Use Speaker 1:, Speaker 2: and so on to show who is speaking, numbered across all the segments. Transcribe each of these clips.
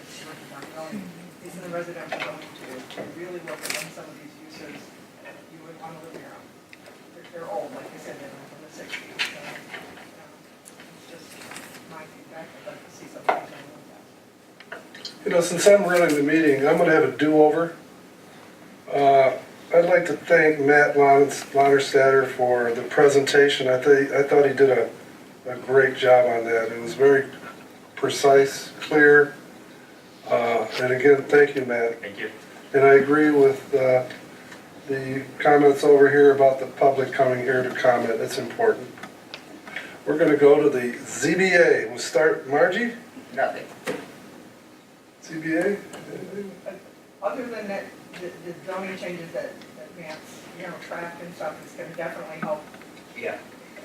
Speaker 1: town zoning, at least in the residential zoning too. If you really look at when some of these uses, you would want to live near them. They're, they're old, like I said, they're from the sixties. It's just my feedback, I'd like to see something change like that.
Speaker 2: You know, since I'm running the meeting, I'm gonna have a do-over. Uh, I'd like to thank Matt Lons- Lonnerstatter for the presentation. I think, I thought he did a, a great job on that. It was very precise, clear. Uh, and again, thank you, Matt.
Speaker 3: Thank you.
Speaker 2: And I agree with, uh, the comments over here about the public coming here to comment. It's important. We're gonna go to the ZBA. We'll start, Margie?
Speaker 4: Nothing.
Speaker 2: ZBA?
Speaker 1: Other than that, the the zoning changes that, that Matt's, you know, tracked and stuff, it's gonna definitely help.
Speaker 4: Yeah.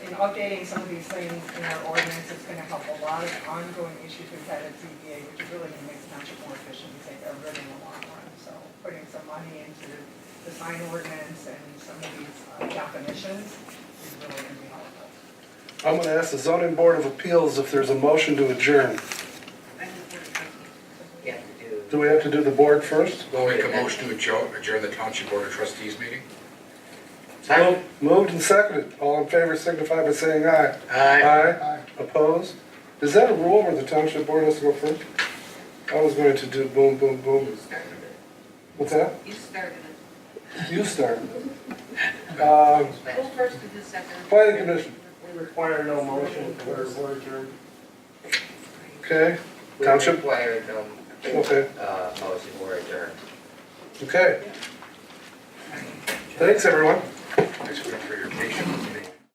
Speaker 1: In updating some of these things in our ordinance, it's gonna help a lot of ongoing issues we've had at ZBA, which really gonna make the township more efficient, and take everything in the long run. So putting some money into the sign ordinance and some of these uh, definitions is really gonna be helpful.
Speaker 2: I'm gonna ask the zoning board of appeals if there's a motion to adjourn.
Speaker 4: You have to do.
Speaker 2: Do we have to do the board first?
Speaker 5: We'll make a motion to adjourn, adjourn the Township Board of Trustees meeting.
Speaker 4: Second.
Speaker 2: Moved and seconded. All in favor signify by saying aye.
Speaker 5: Aye.
Speaker 2: Aye. Opposed? Is that a rule where the township board has to go first? I was going to do boom, boom, boom.
Speaker 6: You started it.
Speaker 2: What's that?
Speaker 6: You started it.
Speaker 2: You start. Um,
Speaker 6: Who first did the second?
Speaker 2: Planning commission.
Speaker 7: We require no motion for word adjourned.
Speaker 2: okay,
Speaker 4: We
Speaker 2: Township?
Speaker 4: require no,
Speaker 2: okay,
Speaker 4: uh, motion or adjourn.
Speaker 2: okay. Thanks, everyone.
Speaker 5: Thanks for your patience.